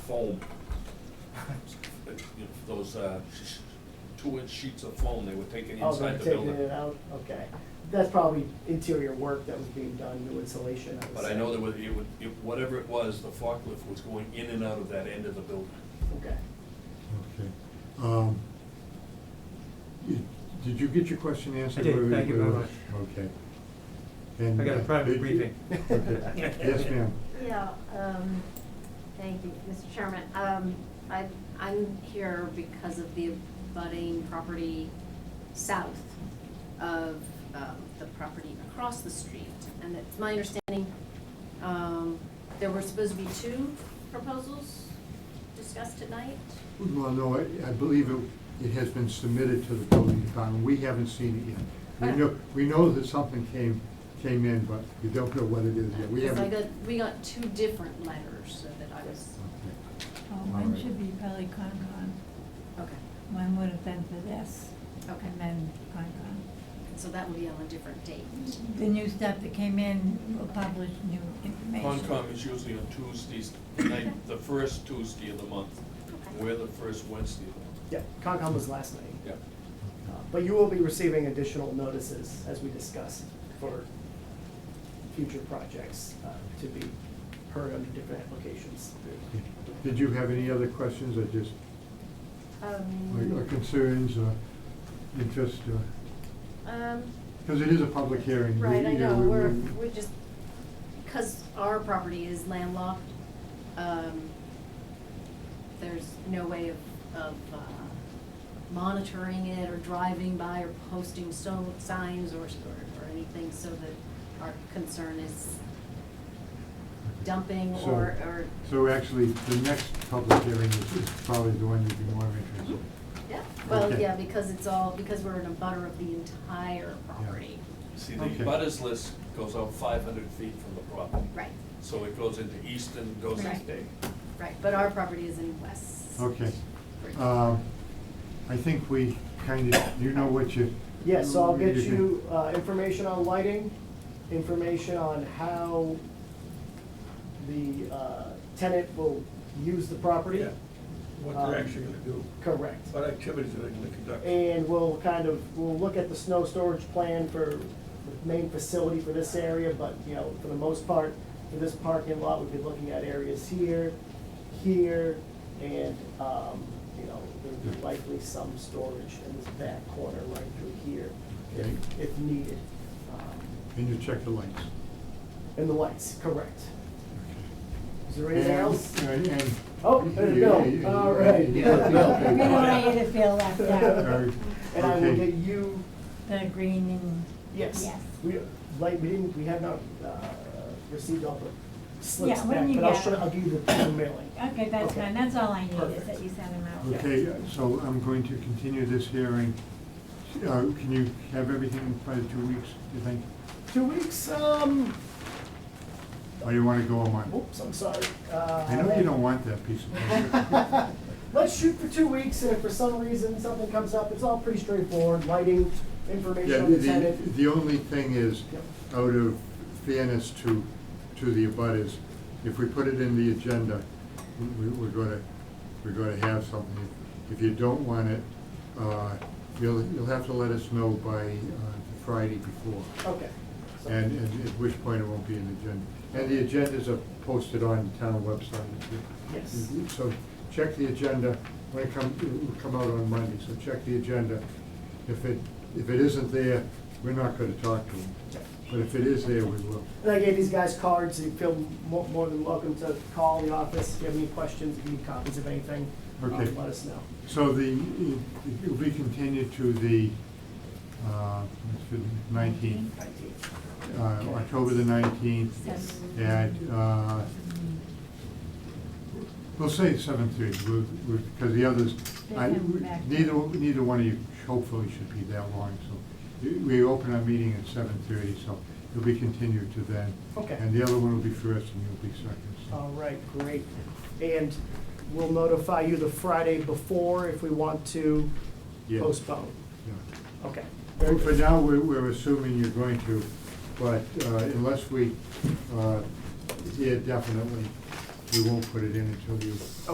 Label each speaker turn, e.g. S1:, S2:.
S1: foam. You know, Those, uh, sh- two inch sheets of foam they were taking
S2: Oh, they're
S1: inside the
S2: taking
S1: building.
S2: it out, okay. That's probably interior work that was being done, new insulation, I would
S1: But I
S2: say.
S1: know there was, it would, it, whatever it was, the forklift was going in and out of that end of the building.
S2: Okay.
S3: Okay. Um, y- Did you get your question answered?
S4: I did.
S3: Where we-
S4: Thank you very much.
S3: Okay. And,
S4: I got a
S3: uh,
S4: private
S3: did-
S4: briefing.
S3: Okay. Yes, ma'am.
S5: Yeah, um, thank you, Mr. Chairman. Um, I, I'm here because of the budding property south of, um, the property across the street. And it's my understanding, um, there were supposed to be two proposals discussed tonight.
S3: Well, no, I, I believe it, it has been submitted to the building department. We haven't seen it yet. We know, we know that something came, came in, but we don't know what it is yet. We
S5: Because I
S3: haven't.
S5: got, we got two different letters, so that I was,
S3: Okay.
S6: Oh,
S3: All
S6: mine
S3: right.
S6: should be probably Concon.
S5: okay.
S6: Mine would have been for this.
S5: Okay.
S6: And then Concon.
S5: So that will be on a different date.
S6: The new stuff that came in will publish new information.
S1: Concom is usually on Tuesdays, the night, the first Tuesday of the month.
S5: Okay.
S1: We're the first Wednesday of the month.
S2: Yeah, Concom was last night.
S1: Yeah.
S2: Uh, But you will be receiving additional notices, as we discussed, for future projects uh, to be heard under different applications.
S3: Did you have any other questions or just,
S5: Um,
S3: or or concerns or interest uh, or?
S5: Um,
S3: Because it is a public hearing. We-
S5: Right, I
S3: you
S5: know,
S3: we-
S5: we're,
S3: we-
S5: we're just, because our property is landlocked, um, there's no way of, of, uh, monitoring it or driving by or posting so, signs or, or, or anything, so that our concern is dumping
S3: So-
S5: or, or,
S3: So actually, the next public hearing is is probably the one you'd be more interested in.
S5: yeah, well,
S3: Okay.
S5: yeah, because it's all, because we're in a butter of the entire property.
S1: See, the
S3: Okay.
S1: butters list goes out five hundred feet from the property.
S5: Right,
S1: So it goes into Easton, goes into
S5: Right.
S1: Dayton.
S5: right, but our property is in West.
S3: Okay.
S5: Bridge.
S3: Um, I think we kind of, you know what you.
S2: Yeah, so I'll get
S3: you can-
S2: you uh, information on lighting, information on how the uh, tenant will use the property.
S7: Yeah, what
S2: Um,
S7: they're actually gonna do,
S2: Correct.
S7: what activities are they gonna conduct.
S2: And we'll kind of, we'll look at the snow storage plan for the main facility for this area, but, you know, for the most part, for this parking lot, we've been looking at areas here, here, and, um, you know, there'll be likely some storage in this back corner right through here,
S3: Okay.
S2: if, if needed. Um,
S3: And you check the lights.
S2: And the lights, correct. Is there
S3: And- uh,
S2: anything else?
S3: and- and-
S2: Oh, there's
S3: Yeah,
S2: Bill.
S3: yeah, yeah,
S2: All
S3: yeah,
S2: right.
S3: yeah, yeah,
S6: We don't
S3: yeah.
S6: want you to feel left out,
S3: Very-
S2: And I will
S3: okay.
S2: get you
S6: the green and.
S2: Yes.
S6: Yes.
S2: We, like, we didn't, we have not, uh, received all the slips
S6: Yeah, when
S2: back,
S6: you
S2: but I'll
S6: get
S2: show,
S6: them.
S2: I'll give you the the mailing.
S6: Okay, that's
S2: Okay.
S6: fine, that's all I need, is
S2: Perfect.
S6: that you sent them out.
S3: Okay, so I'm going to continue this hearing. Uh, Can you have everything by two weeks, do you think?
S2: Two weeks, um,
S3: Or you want to go a month?
S2: oops, I'm sorry, uh.
S3: I know you don't want that piece of paper.
S2: Let's shoot for two weeks, and if for some reason something comes up, it's all pretty straightforward, lighting,
S3: Yeah,
S2: information on the
S3: the,
S2: tenant.
S3: the only thing is,
S2: Yep.
S3: out of fairness to, to the abutters, if we put it in the agenda, we, we're gonna, we're gonna have something. If you don't want it, uh, you'll, you'll have to let us know by uh, Friday before.
S2: Okay. so-
S3: And, and at which point it won't be an agenda. And the agendas are posted on the town website.
S2: Yes.
S3: So check the agenda, when it come, it will come out on Monday, so check the agenda. If it, if it isn't there, we're not gonna talk to them. But if it is there, we will.
S2: And I gave these guys cards, you feel more, more than welcome to call the office, if you have any questions, if you need copies of anything, um,
S3: Okay.
S2: let us know.
S3: So the, it will be continued to the, uh, nineteenth, uh, October the nineteenth.
S6: Yes.
S3: at, uh, we'll say seven thirty, we'll, we'll, because the others,
S6: They
S3: I,
S6: come back.
S3: neither, neither one of you hopefully should be that long, so. we- We open our meeting at seven thirty, so it'll be continued to then.
S2: Okay.
S3: And the other one will be first and you'll be second,
S2: All
S3: so.
S2: right, great. And we'll notify you the Friday before if we want to
S3: Yeah,
S2: postpone.
S3: yeah.
S2: Okay.
S3: Well, For now, we're, we're assuming you're going to, but uh, unless we, uh, yeah, definitely, we won't put it in until you